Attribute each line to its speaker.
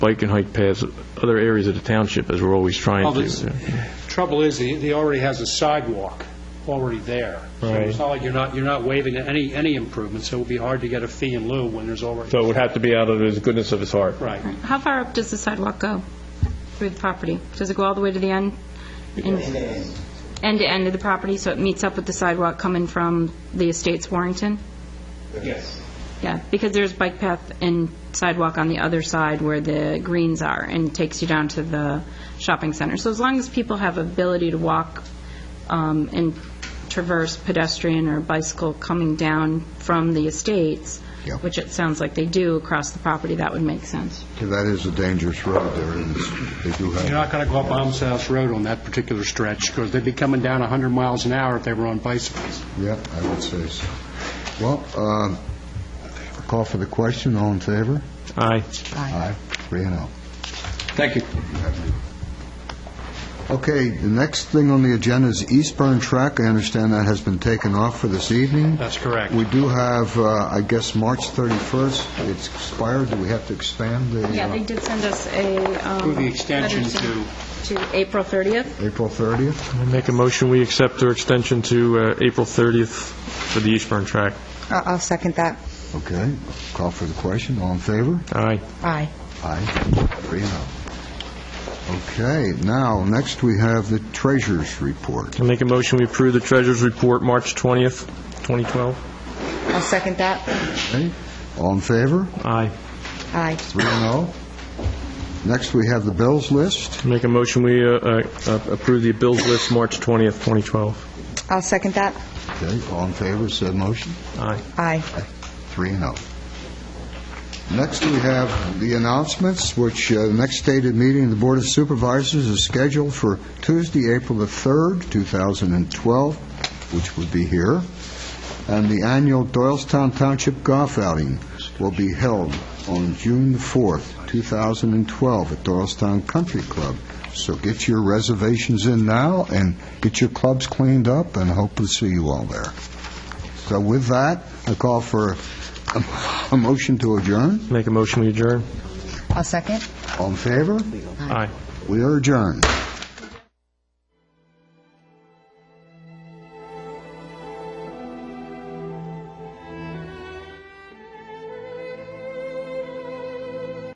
Speaker 1: bike and hike paths, other areas of the township, as we're always trying
Speaker 2: Well, this-
Speaker 1: to.
Speaker 2: Trouble is, he he already has a sidewalk already there. So
Speaker 1: Right.
Speaker 2: It's not like you're not, you're not waiving any, any improvements, so it would be hard to get a fee in lieu when there's already,
Speaker 1: So it would have to be out of his goodness of his heart.
Speaker 2: right.
Speaker 3: How far up does the sidewalk go through the property? Does it go all the way to the end? End to end of the property, so it meets up with the sidewalk coming from the estates Warrington?
Speaker 4: Yes.
Speaker 3: Yeah, because there's bike path and sidewalk on the other side where the greens are, and takes you down to the shopping center. So as long as people have ability to walk um, and traverse pedestrian or bicycle coming down from the estates,
Speaker 4: Yeah.
Speaker 3: which it sounds like they do across the property, that would make sense.
Speaker 4: That is a dangerous road there, and it's- they do
Speaker 2: You're
Speaker 4: have,
Speaker 2: not going to go up Alms House Road on that particular stretch, because they'd be coming down 100 miles an hour if they were on bicycles.
Speaker 4: yeah, I would say so. Well, um, call for the question, all in favor?
Speaker 1: Aye.
Speaker 4: Aye. Three and oh.
Speaker 1: Thank you.
Speaker 4: Okay, the next thing on the agenda is Eastburn Track. I understand that has been taken off for this evening.
Speaker 2: That's correct.
Speaker 4: We do have, uh, I guess, March 31st, it's expired, do we have to expand the...
Speaker 3: Yeah,
Speaker 4: uh,
Speaker 3: they did send us a... um,
Speaker 2: Approve the extension
Speaker 3: letter
Speaker 2: to-
Speaker 3: To April 30th.
Speaker 4: April 30th?
Speaker 1: I Make a motion, we accept their extension to uh, April 30th for the Eastburn track.
Speaker 5: I- Uh, I'll second that.
Speaker 4: Okay, call for the question, all in favor?
Speaker 1: Aye.
Speaker 5: Aye.
Speaker 4: Aye, three and oh. Okay, now, next we have the treasurer's report.
Speaker 1: I Make a motion, we approve the treasurer's report, March 20th, 2012.
Speaker 5: I'll second that.
Speaker 4: Okay, all in favor?
Speaker 1: Aye.
Speaker 5: Aye.
Speaker 4: Three and oh. Next, we have the bills list.
Speaker 1: Make a motion, we uh, uh, approve the bills list, March 20th, 2012.
Speaker 5: I'll second that.
Speaker 4: Okay, all in favor, said motion?
Speaker 1: Aye.
Speaker 5: Aye.
Speaker 4: Three and oh. Next, we have the announcements, which uh, the next stated meeting of the Board of Supervisors is scheduled for Tuesday, April the 3rd, 2012, which would be here, and the annual Doylestown Township Golf Outing will be held on June the 4th, 2012, at Doylestown Country Club. So get your reservations in now, and get your clubs cleaned up, and hope to see you all there. So with that, I call for a- a motion to adjourn.
Speaker 1: Make a motion, we adjourn.
Speaker 5: I'll second.
Speaker 4: All in favor?
Speaker 1: Aye.
Speaker 4: We are adjourned.